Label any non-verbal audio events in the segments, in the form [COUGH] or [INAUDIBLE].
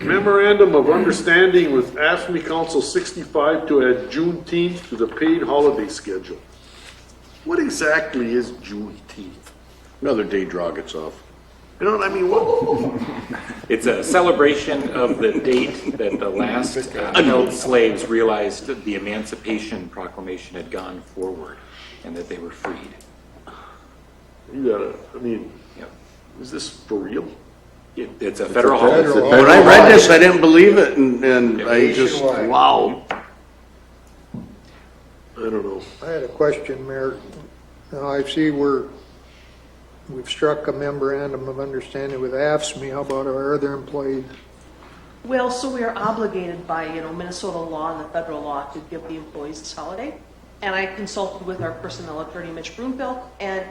Memorandum of Understanding with AFME Council 65 to add Juneteenth to the paid holiday schedule. What exactly is Juneteenth? Another day draw gets off. You know what I mean? What? It's a celebration of the date that the last uh, held slaves realized that the Emancipation Proclamation had gone forward and that they were freed. You gotta, I mean, Yep. is this for real? It- It's a federal holiday. When I read this, I didn't believe it, and, and I just, wow. I don't know. I had a question, Mayor. Now, I see we're, we've struck a memorandum of understanding with AFSMI. How about our other employees? Well, so we are obligated by, you know, Minnesota law and the federal law to give the employees this holiday. And I consulted with our personnel attorney, Mitch Broomfield, and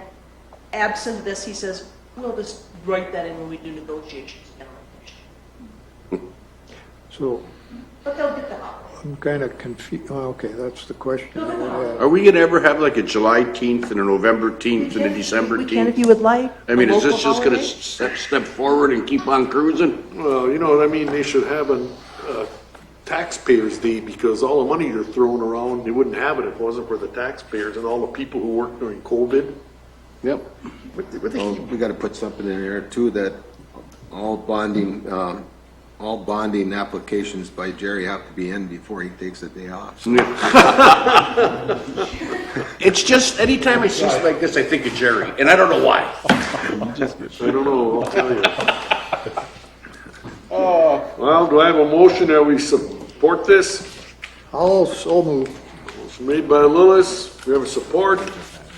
absent this, he says, we'll just write that in when we do negotiations. and negotiations." So But they'll get the holiday. I'm kind of confused. Okay, that's the question I had. Are we gonna ever have like a July teenth and a November teenth and a December We can if teenth? you would like. I mean, a is this local just gonna holiday. step, step forward and keep on cruising? Well, you know what I mean, they should have a uh, taxpayers' day, because all the money you're throwing around, they wouldn't have it if it wasn't for the taxpayers and all the people who worked during COVID. Yep. We gotta put something in there too, that all bonding, um, all bonding applications by Jerry have to be in before he takes the day off. It's just, anytime I see something like this, I think of Jerry, and I don't know why. I don't know, I'll tell you. Well, do I have a motion that we support this? I'll so move. It's made by Lillis, we have a support,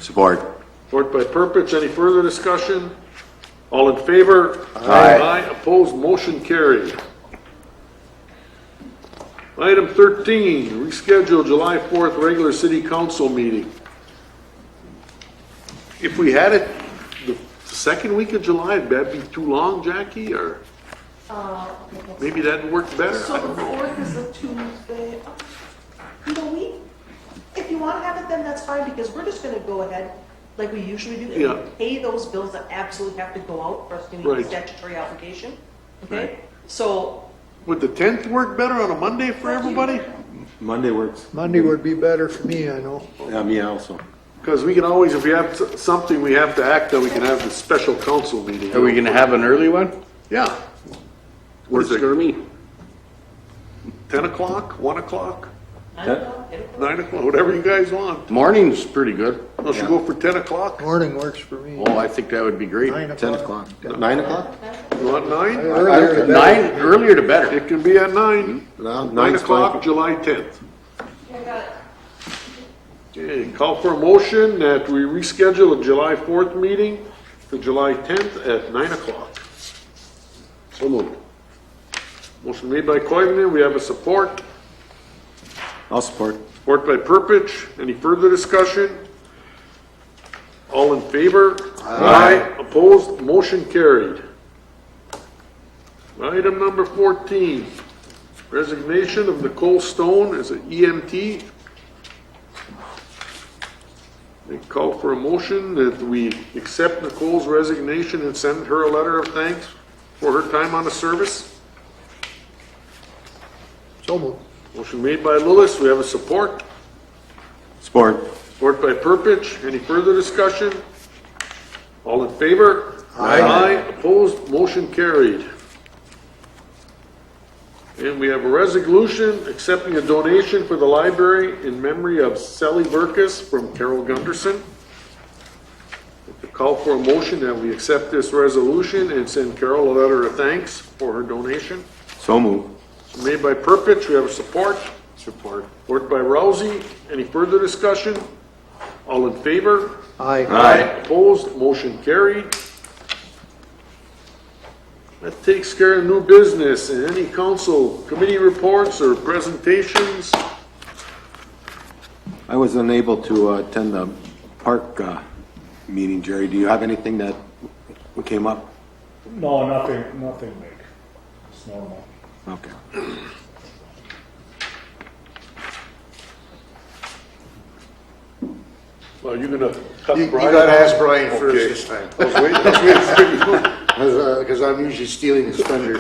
Support. support by Purpich, any further discussion? All in favor? Aye. opposed, motion carried. Item 13, reschedule July 4th regular city council meeting. If we had it the second week of July, would that be too long, Jackie, or maybe that'd work better? I So don't the know. fourth is a Tuesday, uh, you know, we, if you want to have it then, that's fine, because we're just going to go ahead like we usually do. and Yeah. Pay those bills that absolutely have to go out for us to meet the Right. statutory obligation, okay? So, Would the 10th work better on a Monday for everybody? Monday works. Monday would be better for me, I know. Yeah, Uh, me also. Because we can always, if we have s- something we have to act on, we can have the special council meeting. Are we gonna have an early one? Yeah. Works Where's it, for me. 10 o'clock, 1 o'clock, I don't know, it'll- 9 o'clock, whatever you guys want. Morning's pretty good. Let's go for 10 o'clock, Morning works for me. Oh, I think that would be great. Nine o'clock. Ten o'clock. Nine o'clock? not 9? Earlier the better. Nine, earlier the better. It can be at 9. No, 9 nine's o'clock, fine. July 10th. Okay, call for a motion that we reschedule the July 4th meeting to July 10th at 9 o'clock. So moved. Motion made by Coivinon, we have a support. I'll support. Support by Purpich. Any further discussion? All in favor? Aye. Opposed? Motion carried. Item number 14, resignation of Nicole Stone as E an EMT. They call for a motion that we accept Nicole's resignation and send her a letter of thanks for her time on the service. So move. Motion made by Lillis. We have a support. Support. Support by Purpich. Any further discussion? All in favor? Aye. Opposed? Motion carried. And we have a resolution accepting a donation for the library in memory of Sally Burkus from Carol Gunderson. The Call for a motion that we accept this resolution and send Carol a letter of thanks for her donation. So move. Made by Purpich, we have a support. Support. Support by Rousey. Any further discussion? All in favor? Aye. Opposed, motion carried. That takes care of new business and any council committee reports or presentations. I was unable to uh, attend the park uh, meeting, Jerry. Do you have anything that came up? No, nothing, nothing big. It's normal. Okay. Well, you're gonna cut You, you Brian gotta ask off? Brian Okay. Oh, first this time, [LAUGHS] I was waiting- I was waiting for you. uh, because I'm usually stealing his thunder.